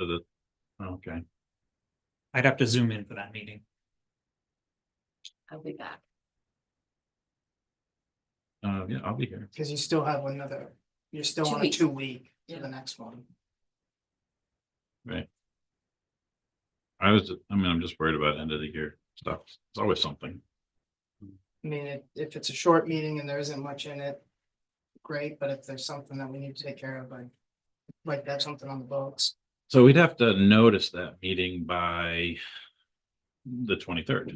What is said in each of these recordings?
to the, okay. I'd have to zoom in for that meeting. I'll be back. Uh, yeah, I'll be here. Cause you still have another, you're still Two on a weeks. two week to Yeah. the next one. I was, I mean, I'm just worried about end of the year stuff. It's always something. I mean, if, if it's a short meeting and there isn't much in it. Great, but if there's something that we need to take care of, like, like that's something on the books. So we'd have to notice that meeting by the twenty-third.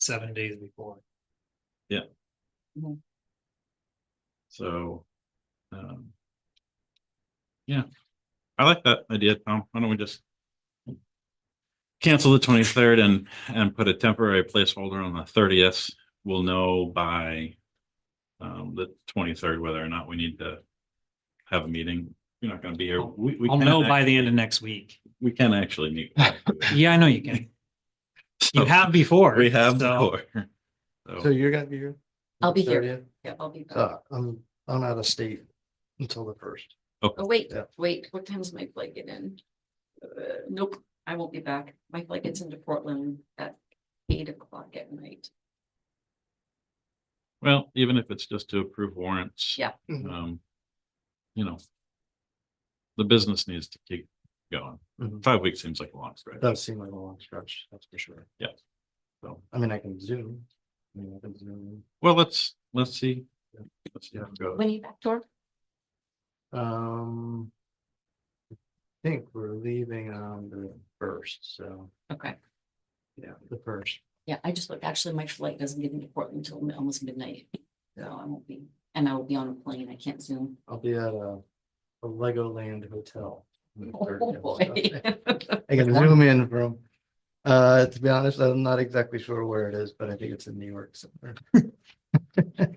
seven days before. So, um, yeah, I like that idea, Tom. Why don't we just cancel the twenty-third and, and put a temporary placeholder on the thirtieth? We'll know by um, the twenty-third whether or not we need to have a meeting. You're not gonna be here. We, we I'll can know act- by the end of next week. We can actually meet. Yeah, I know you can. You have before. We have so- before. So So, you're gonna be here? I'll be here. 30th? Yeah, I'll be back. Uh, I'm, I'm out of state until the first. Oh, wait, yeah. wait, what time's my flight get in? Uh, Nope, I won't be back. My flight gets into Portland at eight o'clock at night. well, even if it's just to approve warrants. Yeah. Mhm. Mm-hmm. um, you know, the business needs to keep going. Mhm. Five weeks seems like a long stretch. Does seem like a long stretch, that's for sure. Yeah. So, I mean, I can zoom. I mean, I can zoom. well, let's, let's see. Let's see how it goes. When are you back, Tor? Um. I think we're leaving on the first, so, Okay, yeah, the first. yeah, I just looked, actually, my flight doesn't get into Portland until mi- almost midnight. So I won't be, and I will be on a plane. I can't zoom. I'll be at a, a Legoland hotel. on the Oh, 30th, so. boy. I can zoom in from, uh, to be honest, I'm not exactly sure where it is, but I think it's in New York somewhere.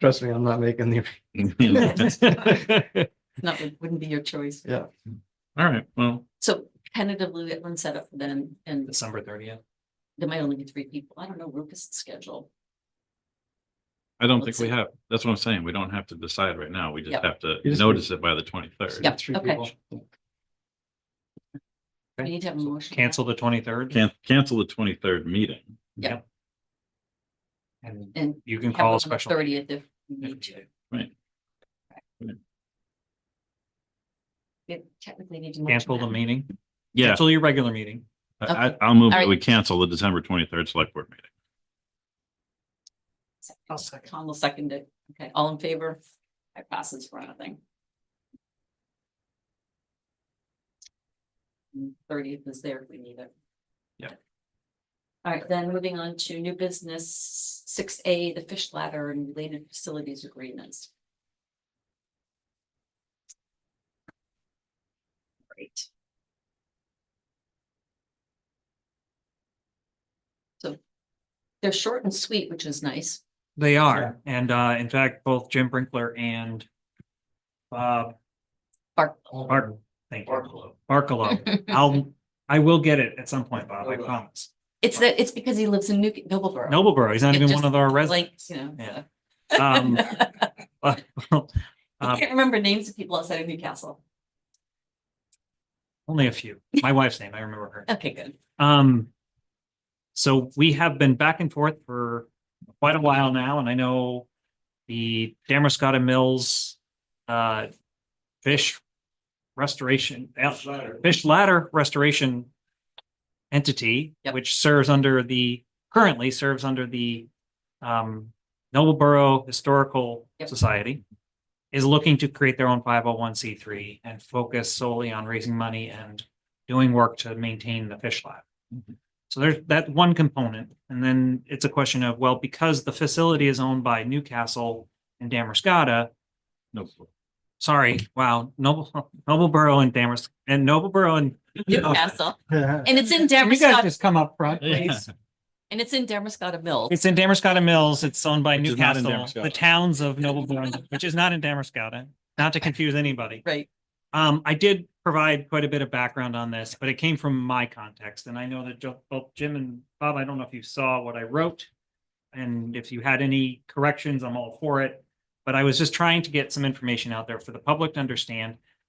Trust me, I'm not making the, Not, wouldn't be your choice. yeah, All right, well, So tentatively, that one set up for then, and December thirtieth. there might only be three people. I don't know Rufus' schedule. I don't think Let's we see. have, that's what I'm saying. We don't have to decide right now. We just Yep. have to You just- notice it by the twenty-third. Yeah, three okay. people. We need to have a motion. Cancel the twenty-third Can, cancel the twenty-third meeting. and And you can call a special. Thirtieth if we if need to. needed. We technically need to. motion Cancel the that. meeting. Yeah, Cancel your regular meeting. I, Okay. I- I'll move, that All right. we cancel the December twenty-third select board meeting. I'll second. Tom will second it. Okay, all in favor? I passes for nothing. Thirtieth is there if we need it. Yeah. All right, then moving on to new business, six A, the fish ladder and related facilities agreements. Great. So they're short and sweet, which is nice. They are. And uh, in fact, both Jim Brinkler and Bob Bark, Bark, thank you. Barkalow. I'll, I will get it at some point, Bob, I promise. it's that, it's because he lives in New Noblesboro. Nobleboro, he's not It even just, one of our Like, residents. you know. Yeah. so. Um, uh, well, I um, can't remember names of people outside of Newcastle. Only a few. My wife's name, I remember her. Okay, good. Um, so we have been back and forth for quite a while now, and I know the Damascotta Mills, uh, fish restoration, uh, fish ladder restoration entity, Yep. which serves under the, currently serves under the, um, Noblesboro Historical Yep. Society, is looking to create their own five oh one C three and focus solely on raising money and doing work to maintain the fish lab. So there's that one component, and then it's a question of, well, because the facility is owned by Newcastle and Damascotta, No, sorry, wow, Noble, Nobleboro and Damas, and Nobleboro and. Newcastle. And it's in Can you guys Damascotta, just come up front, Yeah. please? and it's in Damascotta Mills. It's in Damascotta Mills. It's owned by Which is not in Newcastle, the Damascotta. towns of Nobleboro, which is not in Damascotta, not to confuse anybody. Right. Um, I did provide quite a bit of background on this, but it came from my context, and I know that jo- both Jim and Bob, I don't know if you saw what I wrote. And if you had any corrections, I'm all for it, but I was just trying to get some information out there for the public to understand.